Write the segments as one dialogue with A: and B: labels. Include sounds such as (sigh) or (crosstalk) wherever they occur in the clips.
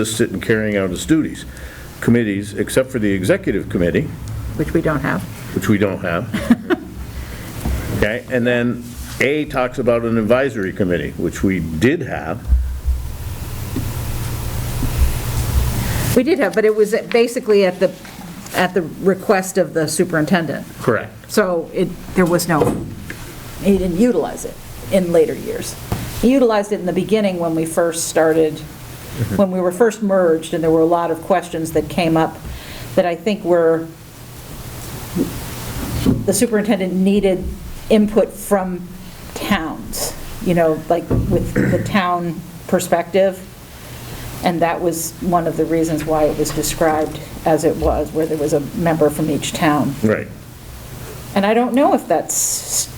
A: assist in carrying out its duties. Committees, except for the executive committee,
B: which we don't have.
A: which we don't have. Okay, and then A talks about an advisory committee, which we did have.
B: We did have, but it was basically at the, at the request of the superintendent.
A: Correct.
B: So it, there was no, he didn't utilize it in later years. He utilized it in the beginning when we first started, when we were first merged, and there were a lot of questions that came up that I think were, the superintendent needed input from towns, you know, like with the town perspective. And that was one of the reasons why it was described as it was, where there was a member from each town.
A: Right.
B: And I don't know if that's,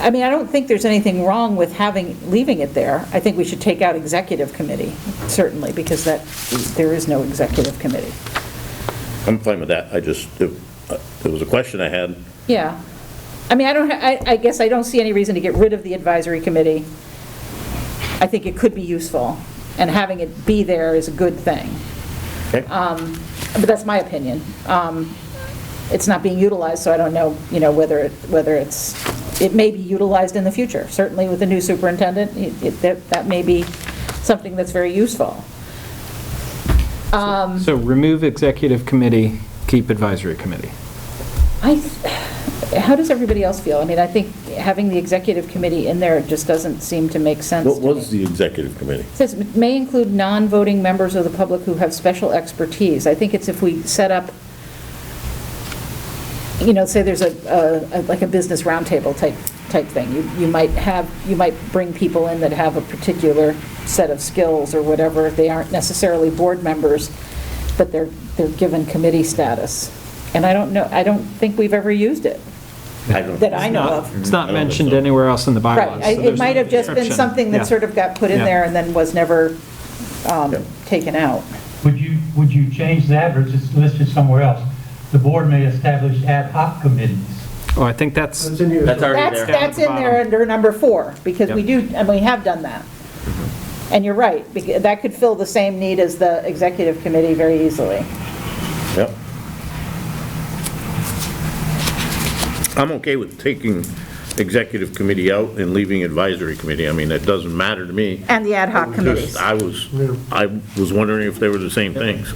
B: I mean, I don't think there's anything wrong with having, leaving it there. I think we should take out executive committee, certainly, because that, there is no executive committee.
A: I'm fine with that. I just, it uh, it was a question I had.
B: Yeah. I mean, I don't, ha- I, I guess I don't see any reason to get rid of the advisory committee. I think it could be useful, and having it be there is a good thing.
A: Okay.
B: Ah, But that's my opinion. Um, It's not being utilized, so I don't know, you know, whether, it whether it's, it may be utilized in the future. Certainly with the new superintendent, it- it- that that may be something that's very useful.
C: So remove executive committee, keep advisory committee.
B: I, th- how does everybody else feel? I mean, I think having the executive committee in there just doesn't seem to make sense
A: What
B: to me.
A: was the executive committee?
B: It Says, "May include non-voting members of the public who have special expertise." I think it's if we set up, you know, say there's a- a, a- like a business roundtable type, type thing. You you might have, you might bring people in that have a particular set of skills or whatever. They aren't necessarily board members, but they're, they're given committee status. And I don't know, I don't think we've ever used it,
A: don't-
B: that I know of.
C: It's not
A: Mm. I don't think
C: mentioned
A: so.
C: anywhere else in the bylaws.
B: Right, I- it might have just been something that sort of got put in
C: Yeah.
B: there and then was never um,
A: Yeah.
B: taken out.
D: Would you, would you change that or just list it somewhere else? The board may establish ad hoc committees.
C: Oh, I think that's,
E: It's in here.
F: That's already
B: That's,
F: there.
B: that's in there under number four, because we do, and we have done that.
A: Mm-hmm.
B: And you're right, becau- that could fill the same need as the executive committee very easily.
A: Yep. I'm okay with taking executive committee out and leaving advisory committee. I mean, that doesn't matter to me.
B: And the ad hoc committees.
A: Just, I was, I was wondering if they were the same things.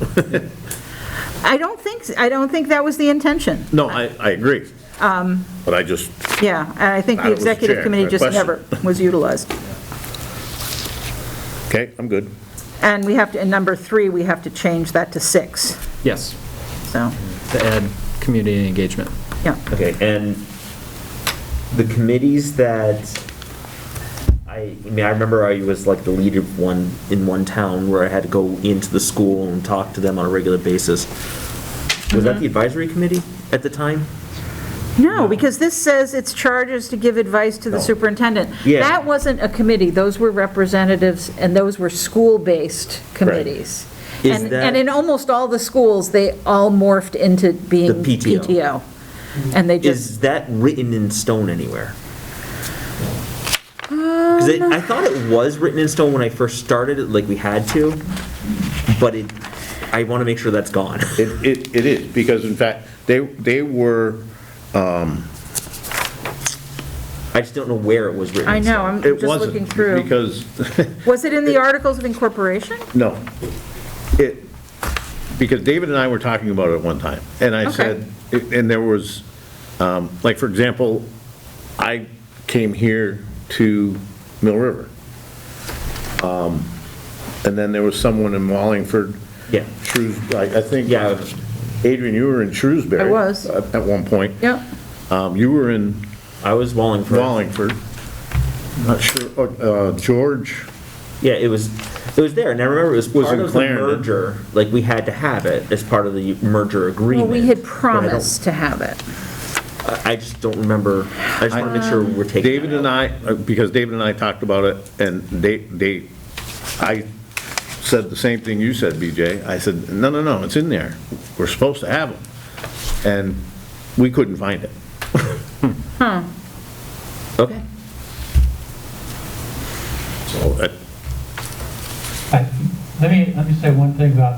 A: (laughs)
B: I don't think, I don't think that was the intention.
A: No, I, I agree.
B: Um,
A: But I just,
B: Yeah, and I think
A: That
B: the
A: was the
B: executive
A: chair,
B: committee
A: the
B: just
A: question.
B: never was utilized.
A: okay, I'm good.
B: And we have to, in number three, we have to change that to six,
C: yes,
B: so,
C: to add community engagement.
B: yeah.
F: Okay, and the committees that, I, I mean, I remember I was like the leader of one, in one town where I had to go into the school and talk to them on a regular basis. Was that
B: Mm-hmm.
F: the advisory committee at the time?
B: No, because this says its charge is to give advice to the superintendent.
F: Yeah.
B: That wasn't a committee, those were representatives, and those were school-based committees.
F: Is
B: And,
F: that-
B: and in almost all the schools, they all morphed into being
F: The PTO.
B: PTO. And they just,
F: Is that written in stone anywhere?
B: Um,
F: Because I thought it was written in stone when I first started, it, like we had to, but it, I want to make sure that's gone. (laughs)
A: It, it, it is, because in fact, they, they were,
F: I just don't know where it was written
B: I
F: in
B: know,
F: stone.
B: I'm
A: it
B: just looking
A: wasn't,
B: through.
A: because,
B: Was it in the Articles of Incorporation?
A: no. It, because David and I were talking about it one time, and I
B: Okay.
A: said, and there was, um, like, for example, I came here to Mill River. Um, And then there was someone in Wallingford.
F: Yeah.
A: Shrews, I I think. uh,
F: Yeah.
A: Adrian, you were in Shrewsbury. uh,
B: I was.
A: At at one point.
B: Yep.
A: Um, You were in
F: I was Wallingford.
A: Wallingford. Not sure, uh, George,
F: Yeah, it was, it was there, and I remember it was
A: Was
F: part
A: in
F: of the
A: Clarendon.
F: merger, like, we had to have it as part of the merger
B: Well,
F: agreement.
B: we had
F: but I don't-
B: promised to have it.
F: I I just don't remember, I just want to make sure we're taking.
A: David
F: that
A: and
F: out.
A: I, uh, because David and I talked about it, and they, they, I said the same thing you said, BJ. I said, no, no, no, it's in there. We're supposed to have them. And we couldn't find it. Oh.
F: Okay,
A: So, uh,
D: I- Let me, let me say one thing about